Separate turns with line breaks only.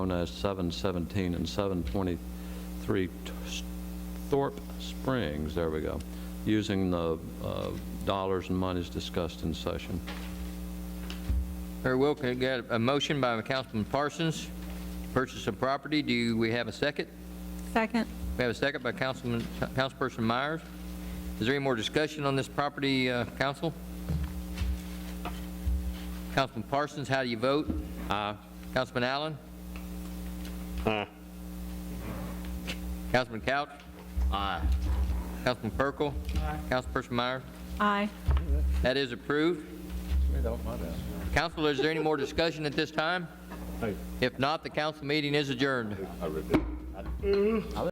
known as 717 and 723 Thorpe Springs, there we go, using the uh, dollars and monies discussed in session.
Very well, can I get a motion by Councilman Parsons, to purchase of property, do we have a second?
Second.
We have a second by Councilman, Councilperson Myers. Is there any more discussion on this property, uh, council? Councilman Parsons, how do you vote? Aye. Councilman Allen? Aye. Councilman Couch? Aye. Councilman Perkel? Aye. Councilperson Myers?
Aye.
That is approved. Council, is there any more discussion at this time? If not, the council meeting is adjourned.